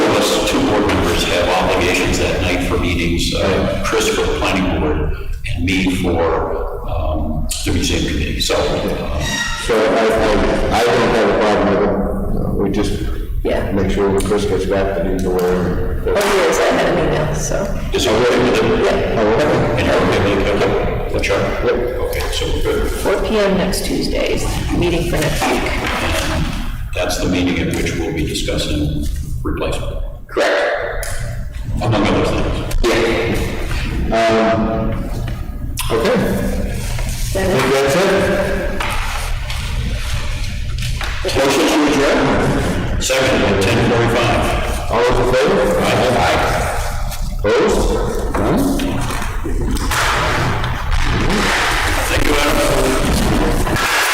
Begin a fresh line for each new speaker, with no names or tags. committees, uh, Chris for the planning board, and me for um, the museum committee. So, uh,
So I, I, I don't have a problem with it. Uh, We just
Yeah.
make sure when Chris gets back that he's aware.
Oh, he is, I had an email, so.
is it okay with them?
Oh,
And you're okay with it? Okay. Well, Chuck? Okay, so we're good.
4 PM next Tuesday is the meeting for next week.
That's the meeting at which we'll be discussing replacement,
Correct.
among other things.
Um, Okay, I
Then
think that's it. Motion to adjourn.
Second, at 10:45.
All those in favor? Opposed? None?
Thank you, Adam.